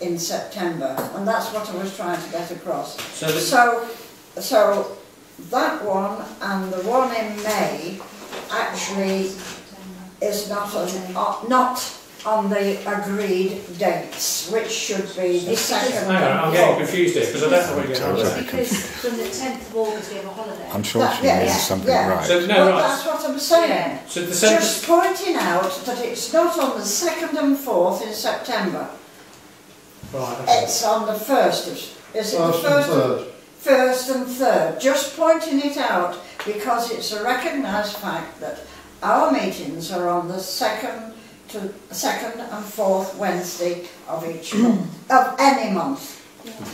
in September, and that's what I was trying to get across. So the- So, so that one and the one in May actually is not on, uh, not on the agreed dates, which should be the second. Hang on, I'm getting confused here because I don't know what you're going on Sorry. about. Right. It's because from the 10th of August we have a holiday. I'm sure she knows something So right. no, but right. that's what I'm saying. So the Just sentence. pointing out that it's not on the second and fourth in September. Right. Okay. It's on the first. Is, is it the First and first? third. first and third, just pointing it out because it's a recognised fact that our meetings are on the second to second and fourth Wednesday of each month, of any month,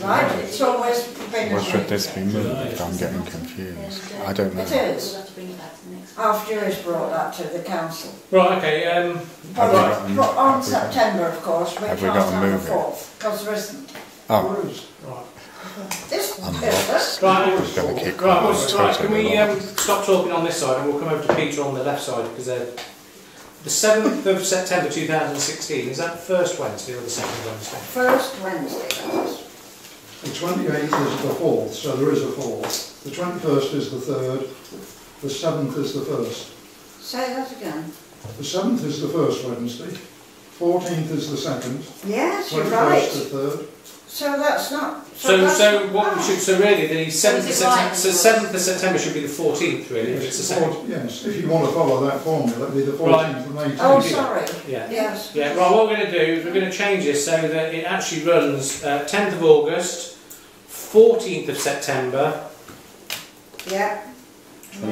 right? It's always been Or should this be agreed. moved? I'm getting confused. I don't It know. We'll is. have to bring it back to the next. After it's brought that to the council. Right. Okay. Um, Have we But got a- but on have we got- September, of course, we have can't we got a have the move in? fourth, because there isn't. Oh, right. This, I'm this, Right. it's going to keep Right, going. what's, right, can we um, Totally stop talking on this side and we'll come over to Peter on the left side because they're... The 7th of September 2016, is that the first Wednesday or the second Wednesday? first Wednesday, that is. The twenty-eighth is the fourth, so there is a fourth. The twenty-first is the third, the seventh is the first. say that again. The seventh is the first Wednesday, fourteenth is the second, Yes, you're twenty-first right. the third. So that's not. So, that's so not- what we should, so really the 7th of it September, right? so 7th of September should be the 14th really, if it's the second. Four- Yes, if you want to follow that formula, it'd be the fourteenth and eighteenth. Oh, sorry. Yeah. Yes. Yeah, right, what we're going to do is we're going to change this so that it actually runs uh, 10th of August, 14th of September Yeah. and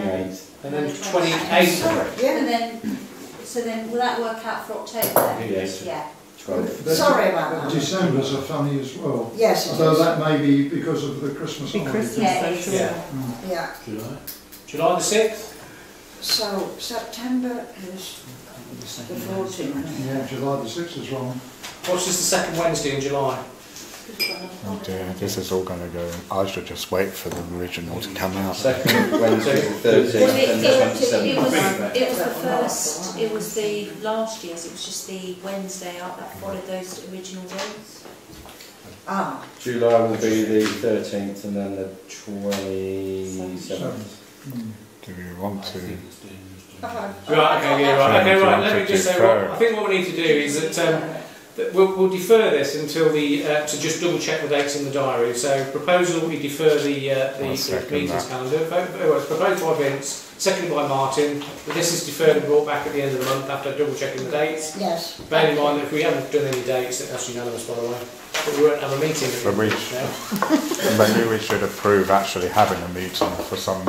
then Sorry. 28th. Sorry. And Yeah. then, so then will that work out for October then? Yes. Yeah. Sorry about that. December's are funny as well, Yes. it although is. that may be because of the Christmas holiday. Yeah, uh, it is. Yeah. Yeah. July the 6th? So September is the fourteenth. Yeah, July the sixth is wrong. What's just the second Wednesday in July? Oh dear, this is all going to go. I should just wait for the original to come out. Second, Wednesday, Thursday, Well, it, and the it, it was, 27th. it was the first, it was the last year's, it was just the Wednesday out that followed those original dates. Ah, July will be the 13th and then the 27th. Do we want to? uh-huh. Right, okay, yeah, right, okay, right, let me just say, what, Defer. I think what we need to do is that, um, that we'll, we'll defer this until the, uh, to just double check the dates in the diary, so proposal, we defer the, uh, the I'll the second meetings that. calendar, Vote- well, it's proposed by Vince, seconded by Martin, that this is deferred and brought back at the end of the month after double checking the dates. Yes. Bear in mind that if we haven't done any dates, that- that's unanimous by the way, but we won't have a meeting. at the But we end of sh- the day. Maybe we should approve actually having a meeting for some,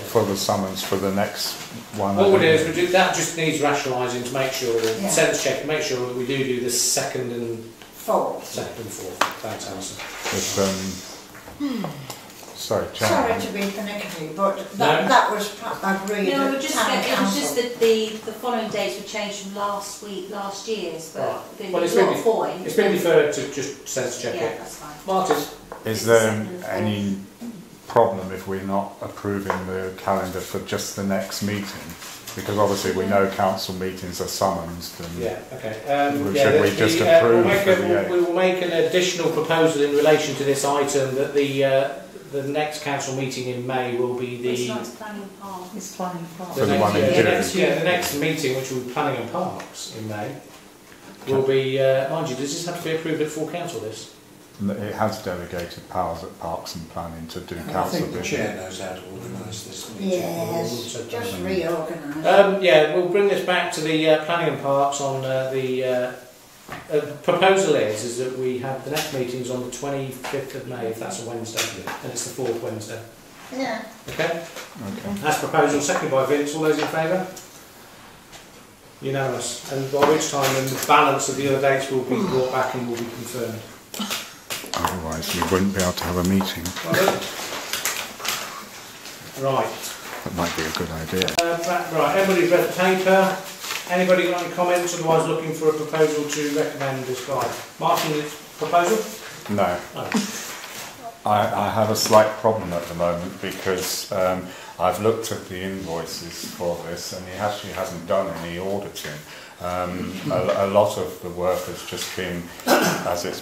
for the summons for the next one. What we'll do is, we'll do, that just needs rationalising to make sure, Yeah. sense check, make sure that we do do the second and, Fourth. second and fourth, thanks Alison. It's, um, sorry, Sorry Chairman. to be pernickety, but that, No. that was pa- agreed No, at we're just, town it was just council. that the, the following dates were changed from last week, last year's, but Right. the Well, it's lot really- following. It's been deferred to just sense check Yeah, it. that's fine. Martin, Is there any problem if we're not approving the calendar for just the next meeting? Because obviously we know council meetings are summons and yeah, okay. Um, Well, yeah, should the- we the, just uh, we'll approve make for a, the we will make an additional proposal in relation to this item that the, uh, the next council meeting in May will be It's the. not planning part. It's planning part. For the next- one in yeah, June. next- Yeah, the next meeting, which will be planning and parks in May, will be, uh, mind you, does this have to be approved at full council this? it has delegated powers at Parks and Planning to do I council think the business. chair knows how to organise this meeting. Yes, just reorganise. Um, yeah, we'll bring this back to the uh, planning and parks on uh, the, uh, uh, proposal is, is that we have, the next meeting's on the 25th of May, if that's a Wednesday, and it's the fourth Wednesday, Yeah. okay? Okay. That's proposal, seconded by Vince, all those in favour? Unanimous, and by which time then the balance of the other dates will be brought back and will be confirmed. Otherwise we wouldn't be able to have a meeting. Right, That might be a good idea. uh, that- right, everybody's read the paper, anybody got any comments, otherwise looking for a proposal to recommend this guy? Martin, proposal? No. I, I have a slight problem at the moment because um, I've looked at the invoices for this and he actually hasn't done any auditing. Um, a, a lot of the work has just been, as it's